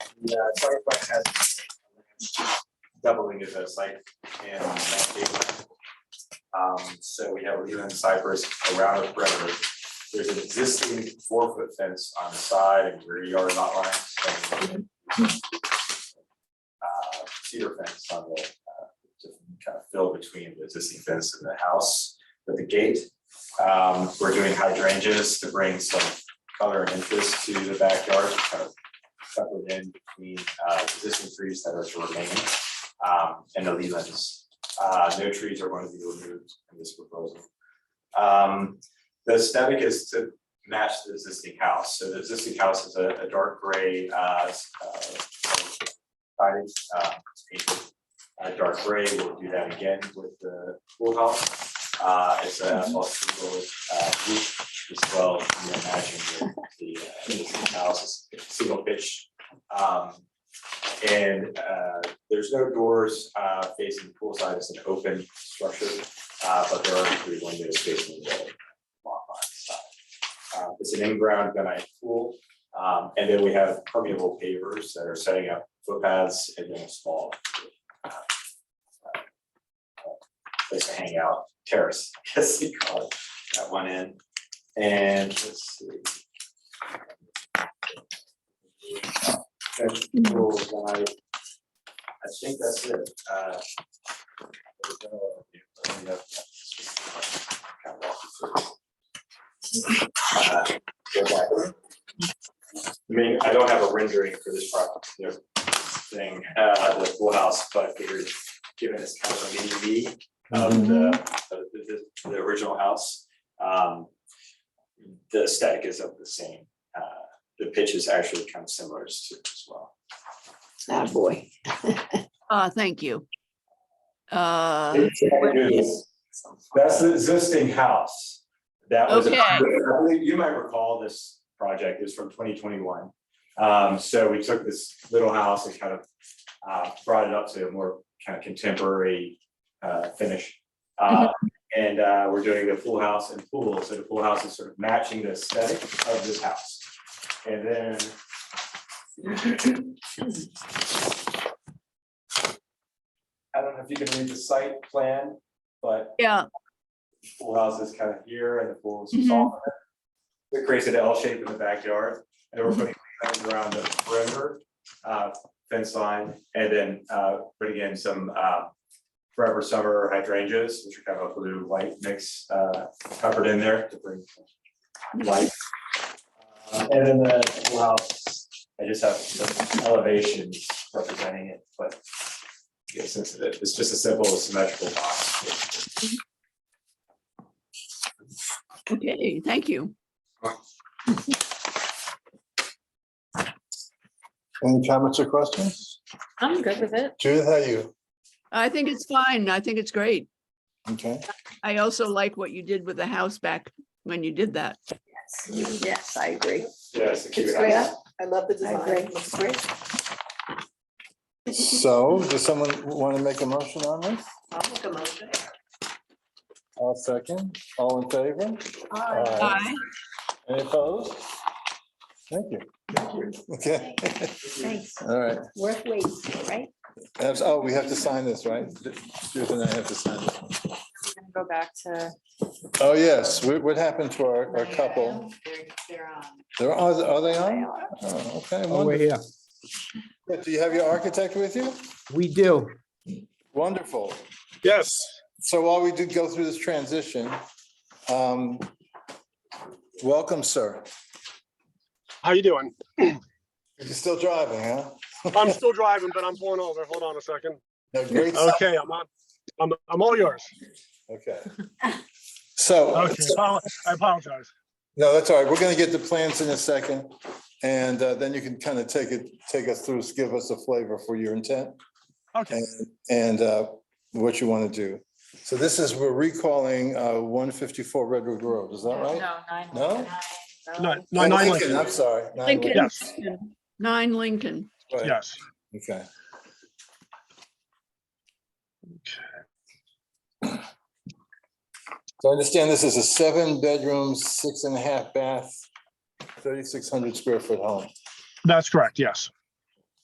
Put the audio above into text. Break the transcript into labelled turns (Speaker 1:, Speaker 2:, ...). Speaker 1: Yeah, Starbucks has doubling of those like in Mankato. Um, so we have Leland Cypress around the perimeter. There's an existing four foot fence on the side and rear yard lot line. and, Uh, cedar fence on the, uh, just kind of fill between the existing fence and the house with the gate. Um, we're doing hydrangeas to bring some color and interest to the backyard, kind of covered in between uh, existing trees that are to remain um, and the leaves. Uh, No trees are going to be removed in this proposal. Um, The aesthetic is to match the existing house. So the existing house is a a dark gray uh, s- uh, siding, uh, it's painted, uh, dark gray. We'll do that again with the pool house. Uh, It's a asphalt shingle, uh, roof as well, you know, imagine the- the uh, existing house is single pitch. Um, and, uh, there's no doors, uh, facing poolside, it's an open structure, uh, but there are three windows facing the lot line side. Uh, it's an in-ground gunite pool, um, and then we have permeable pavers that are setting up footpaths and then a small uh, uh, place to hang out, terrace, I guess you call it, at one end. And let's see. Okay, cool, well, I I think that's it. Uh, there we go. Let me know if that's- Kind of walk you through. Uh, go back. I mean, I don't have a rendering for this product, you know, thing, uh, the pool house, but I figured, given it's kind of a mini V of the, of the, the- the original house, um, the aesthetic is of the same, uh, the pitch is actually kind of similar as to as well.
Speaker 2: Ah, boy.
Speaker 3: Ah, thank you. Uh,
Speaker 1: That's the existing house. That was,
Speaker 3: Okay.
Speaker 1: I believe you might recall this project is from twenty twenty-one. Um, so we took this little house and kind of uh, brought it up to a more kind of contemporary uh, finish. Uh, And uh, we're doing the pool house and pool, so the pool house is sort of matching the aesthetic of this house. And then I don't know if you can read the site plan, but
Speaker 3: yeah,
Speaker 1: pool house is kind of here and the pool
Speaker 3: Mhm.
Speaker 1: is smaller. It creates an L shape in the backyard and then we're putting lines around the perimeter, uh, fence line. And then, uh, putting in some, uh, forever summer hydrangeas, which are kind of a blue white mix, uh, covered in there to bring some light. Uh, And then the pool house, I just have some elevations representing it, but yeah, since it- it's just a simple symmetrical box.
Speaker 3: okay, thank you.
Speaker 4: Any comments or questions?
Speaker 5: I'm good with it.
Speaker 4: Judith, how are you?
Speaker 3: I think it's fine. I think it's great.
Speaker 4: Okay,
Speaker 3: I also like what you did with the house back when you did that.
Speaker 2: Yes, I agree.
Speaker 1: Yeah, it's a cute
Speaker 6: It's
Speaker 1: house.
Speaker 6: great. I love the
Speaker 2: I
Speaker 6: design.
Speaker 2: agree.
Speaker 6: Looks great.
Speaker 4: so does someone want to make a motion on this?
Speaker 6: I'll make a motion.
Speaker 4: I'll second. All in favor?
Speaker 6: Aye.
Speaker 3: Aye.
Speaker 4: Any opposed? Thank you. Okay,
Speaker 2: Thanks.
Speaker 4: all right.
Speaker 2: Worth waiting, for, right?
Speaker 4: That's- Oh, we have to sign this, right? Judith and I have to sign it.
Speaker 5: I'm gonna Go back to.
Speaker 4: Oh, yes. What what happened to our our couple?
Speaker 5: They're- they're on.
Speaker 4: There are, are they on? Oh, Okay,
Speaker 7: Oh,
Speaker 4: wonderful.
Speaker 7: we're here.
Speaker 4: Do you have your architect with you?
Speaker 7: We do.
Speaker 4: Wonderful.
Speaker 7: Yes.
Speaker 4: So while we did go through this transition, um, welcome, sir.
Speaker 8: How you doing?
Speaker 4: You're still driving, huh?
Speaker 8: I'm still driving, but I'm pulling over. Hold on a second.
Speaker 4: No, great.
Speaker 8: Okay, I'm on. I'm, I'm all yours.
Speaker 4: Okay. So,
Speaker 8: Okay, apo- I apologize.
Speaker 4: no, that's all right. We're going to get the plans in a second. And uh, then you can kind of take it, take us through, give us a flavor for your intent
Speaker 8: Okay,
Speaker 4: and- and uh, what you want to do. So this is, we're recalling uh, 154 Redwood Road, is that right?
Speaker 5: No, nine.
Speaker 4: No?
Speaker 8: no,
Speaker 5: nine,
Speaker 8: no, nine
Speaker 4: Lincoln, I'm
Speaker 8: Lincoln.
Speaker 4: sorry. Nine
Speaker 3: Lincoln.
Speaker 4: Lincoln,
Speaker 8: Yes,
Speaker 3: Nine Lincoln.
Speaker 4: right.
Speaker 8: yes.
Speaker 4: Okay. So I understand this is a seven-bedroom, six and a half bath, thirty-six hundred square foot home.
Speaker 8: That's correct, yes.